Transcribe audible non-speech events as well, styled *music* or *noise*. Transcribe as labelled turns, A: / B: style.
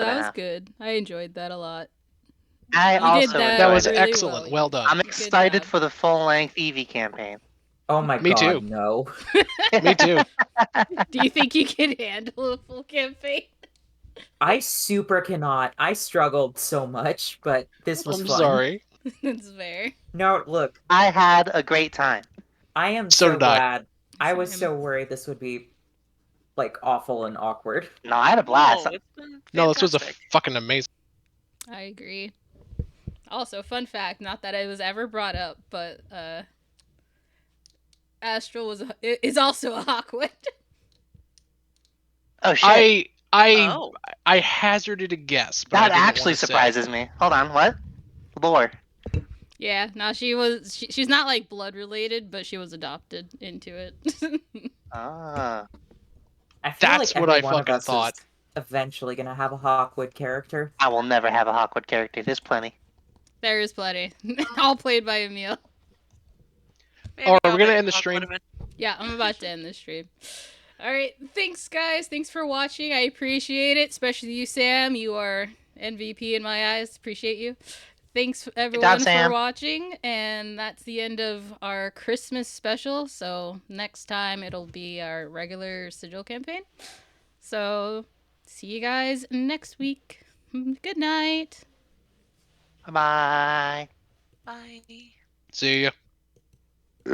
A: That
B: Yeah.
A: was good. I enjoyed that a lot.
B: I
A: You did that
B: also
C: that
B: enjoyed
C: was
B: it.
A: really
C: excellent.
A: well.
C: Well done.
B: I'm
A: Good
B: excited
A: job.
B: for the full length Eevee campaign.
D: Oh my
C: Me
D: god,
C: too.
D: no.
C: *laughs* Me too.
A: Do you think you can *laughs* handle a full campaign? *laughs*
D: I super cannot. I struggled so much, but this was
C: I'm
D: fun.
C: sorry.
A: That's fair.
D: No, look,
B: I had a great time.
D: I am
C: So
D: so,
C: did I.
D: glad. I,
A: Same.
D: was so worried this would be like awful and awkward.
B: No, I had a blast.
E: Oh, it's been
C: No, this was a
E: fantastic.
C: fucking amazing.
A: I agree. Also, fun fact, not that it was ever brought up, but uh Astral was a, i- is also a Hawkwood.
B: Oh shit!
C: I I
E: Oh,
C: I hazarded a guess. But I
B: that
C: didn't
B: actually
C: wanna say.
B: surprises me. Hold on, what? Lore.
A: *laughs* yeah, no, she was she, she's not like blood related, but she was adopted into it. *laughs*
B: Ah,
D: I feel
C: That's
D: like
C: what
D: every
C: I
D: one of
C: fucking
D: us
C: thought.
D: is eventually gonna have a Hawkwood character.
B: I will never have a Hawkwood character. There's plenty.
A: there is plenty. *laughs* All played by Emil.
E: maybe
C: Alright,
E: I'll
C: we're gonna
E: make
C: end the
E: Hawk
C: stream.
E: Woodman.
A: Yeah, I'm about to end this stream. All right, thanks guys. Thanks for watching. I appreciate it, especially you, Sam. You are MVP in my eyes. Appreciate you. Thanks everyone
B: Sam.
A: for watching, and that's the end of our Christmas special. So next time it'll be our regular sigil campaign. So see you guys next week. Mm, Good night.
B: Bye.
E: Bye.
C: See ya.